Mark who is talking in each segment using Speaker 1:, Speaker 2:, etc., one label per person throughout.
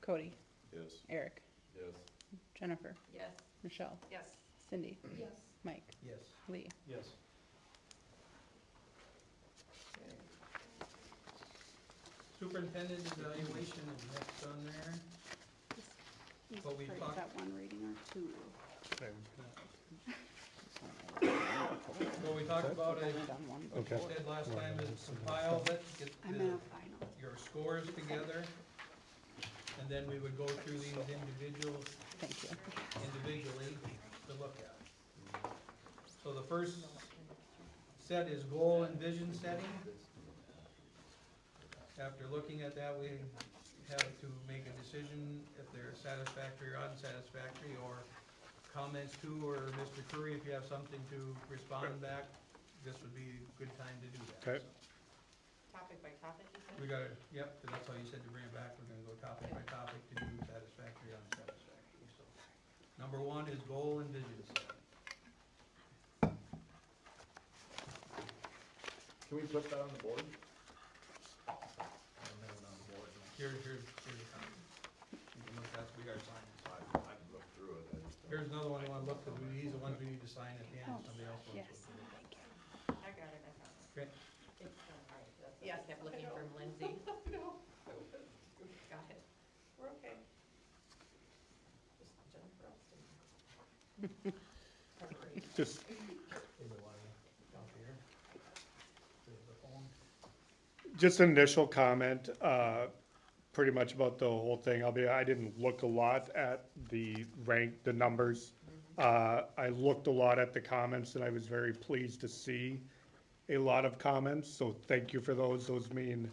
Speaker 1: Cody,
Speaker 2: Yes.
Speaker 1: Eric,
Speaker 2: Yes.
Speaker 1: Jennifer,
Speaker 3: Yes.
Speaker 1: Michelle,
Speaker 3: Yes.
Speaker 1: Cindy,
Speaker 3: Yes.
Speaker 1: Mike,
Speaker 4: Yes.
Speaker 1: Lee.
Speaker 4: Yes. Okay. Superintendent evaluation is next on there.
Speaker 1: This- These
Speaker 4: But we
Speaker 1: parts,
Speaker 4: talked-
Speaker 1: that one reading or two?
Speaker 4: What we talked about, I
Speaker 1: I've done one
Speaker 5: Okay.
Speaker 1: before.
Speaker 4: said last time, is compile it, get
Speaker 1: I'm in a
Speaker 4: the,
Speaker 1: final.
Speaker 4: your scores together, and then we would go through these individuals,
Speaker 1: Thank you.
Speaker 4: individually to look at. So the first set is goal and vision setting. After looking at that, we have to make a decision if they're satisfactory or unsatisfactory, or comments to, or Mr. Curry, if you have something to respond back, this would be a good time to do that.
Speaker 5: Okay.
Speaker 3: Topic by topic, you said?
Speaker 4: We gotta, yep, 'cause that's how you said to bring it back, we're gonna go topic by topic to do satisfactory, unsatisfactory, so. Number one is goal and vision setting.
Speaker 2: Can we put that on the board?
Speaker 4: I don't have it on the board. Here, here, here's the copy. You can look, that's, we gotta sign
Speaker 2: I, I can look through it. I just don't-
Speaker 4: it. Here's another one I wanna look, because these are ones we need to sign at the end, if somebody else wants
Speaker 1: Yes,
Speaker 4: to.
Speaker 1: thank you.
Speaker 3: I got it, I found it.
Speaker 4: Okay,
Speaker 3: It's, um, all right, that's- I kept looking for Lindsay. No. Got it. We're okay. Just Jennifer Elston. Preparation.
Speaker 5: Just,
Speaker 4: here's the one, down here. Here's the phone.
Speaker 5: just an initial comment, uh, pretty much about the whole thing. I'll be, I didn't look a lot at the rank, the numbers. Uh, I looked a lot at the comments and I was very pleased to see a lot of comments, so thank you for those. Those mean,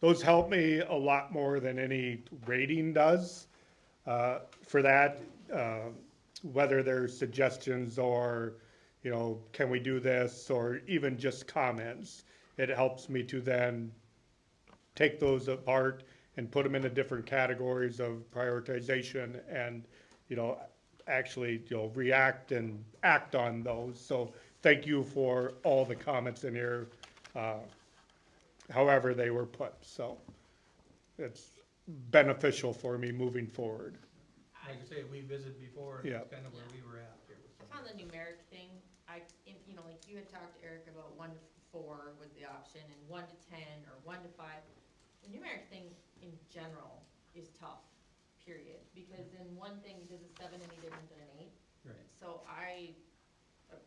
Speaker 5: those help me a lot more than any rating does. Uh, for that, uh, whether they're suggestions or, you know, can we do this, or even just comments, it helps me to then take those apart and put them into different categories of prioritization and, you know, actually, you know, react and act on those. So thank you for all the comments in here, uh, however they were put, so it's beneficial for me moving forward.
Speaker 4: Like I say, we visited before, and that's kinda where we were at here. with
Speaker 3: Just
Speaker 4: some
Speaker 3: on
Speaker 4: of
Speaker 3: the
Speaker 4: it.
Speaker 3: numeric thing, I, if, you know, like you had talked to Eric about one to four was the option, and one to ten, or one to five. The numeric thing in general is tough, period, because then one thing, does a seven any different than an eight?
Speaker 4: Right,
Speaker 3: So I,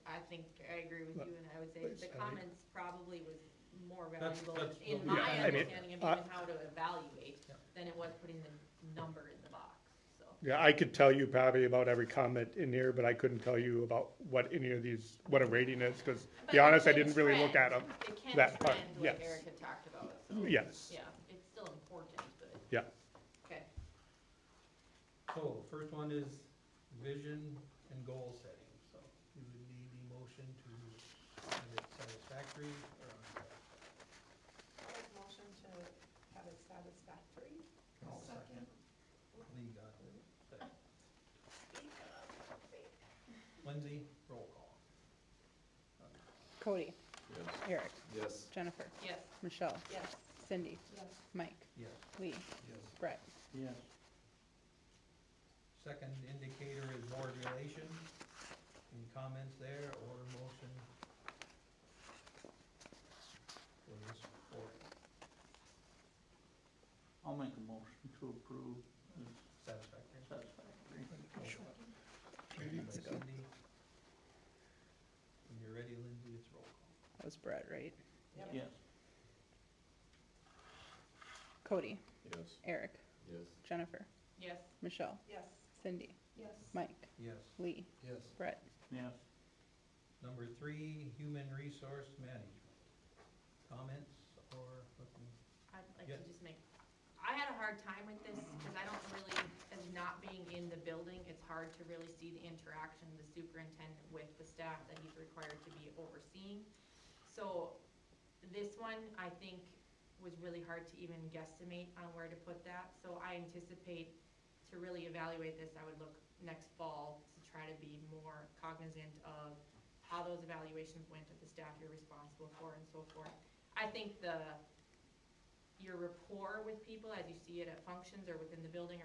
Speaker 3: I think, I agree with you, and I would say
Speaker 5: But-
Speaker 3: the comments probably was more
Speaker 4: That's-
Speaker 3: valuable
Speaker 4: that's
Speaker 3: in
Speaker 4: what-
Speaker 3: my
Speaker 5: Yeah, I mean,
Speaker 3: understanding of
Speaker 5: I-
Speaker 3: even how to evaluate
Speaker 4: Yeah.
Speaker 3: than it was putting the number in the box, so.
Speaker 5: Yeah, I could tell you probably about every comment in here, but I couldn't tell you about what any of these, what a rating is, because,
Speaker 3: But
Speaker 5: be honest, I
Speaker 3: it can
Speaker 5: didn't really look at
Speaker 3: trend.
Speaker 5: them.
Speaker 3: It can
Speaker 5: that part,
Speaker 3: trend, like
Speaker 5: yes. Mm-hmm.
Speaker 3: Eric had talked about, so,
Speaker 5: Yes,
Speaker 3: yeah, it's still important, but,
Speaker 5: yeah.
Speaker 3: okay.
Speaker 4: so, first one is vision and goal setting, so you would need a motion to, is it satisfactory or unsatisfactory?
Speaker 6: I'll make motion to have it satisfactory.
Speaker 4: I'll second. Lee got it. Second. Lindsay, roll call.
Speaker 1: Cody,
Speaker 2: Yes.
Speaker 1: Eric,
Speaker 2: Yes.
Speaker 1: Jennifer,
Speaker 3: Yes,
Speaker 1: Michelle,
Speaker 6: Yes.
Speaker 1: Cindy,
Speaker 6: Yes.
Speaker 1: Mike,
Speaker 4: Yes.
Speaker 1: Lee,
Speaker 4: Yes.
Speaker 1: Brett.
Speaker 4: Yes. Second indicator is board relation. Any comments there or motion? For this board,
Speaker 7: I'll make a motion to approve the
Speaker 4: satisfactory?
Speaker 7: satisfactory.
Speaker 4: Motion by Cindy. When you're ready, Lindsay, it's roll call.
Speaker 1: That was Brett, right?
Speaker 7: Yes,
Speaker 1: Cody,
Speaker 2: Yes.
Speaker 1: Eric,
Speaker 2: Yes.
Speaker 1: Jennifer,
Speaker 3: yes,
Speaker 1: Michelle,
Speaker 6: Yes.
Speaker 1: Cindy,
Speaker 6: Yes.
Speaker 1: Mike,
Speaker 4: Yes.
Speaker 1: Lee,
Speaker 2: Yes.
Speaker 1: Brett.
Speaker 7: yes.
Speaker 4: Number three, human resource management. Comments or looking?
Speaker 3: I'd like
Speaker 4: Yeah.
Speaker 3: to just make, I had a hard time with this, because I don't really, as not being in the building, it's hard to really see the interaction of the superintendent with the staff that he's required to be overseeing. So, this one, I think, was really hard to even guesstimate on where to put that, so I anticipate to really evaluate this, I would look next fall to try to be more cognizant of how those evaluations went of the staff you're responsible for and so forth. I think the, your rapport with people as you see it at functions or within the building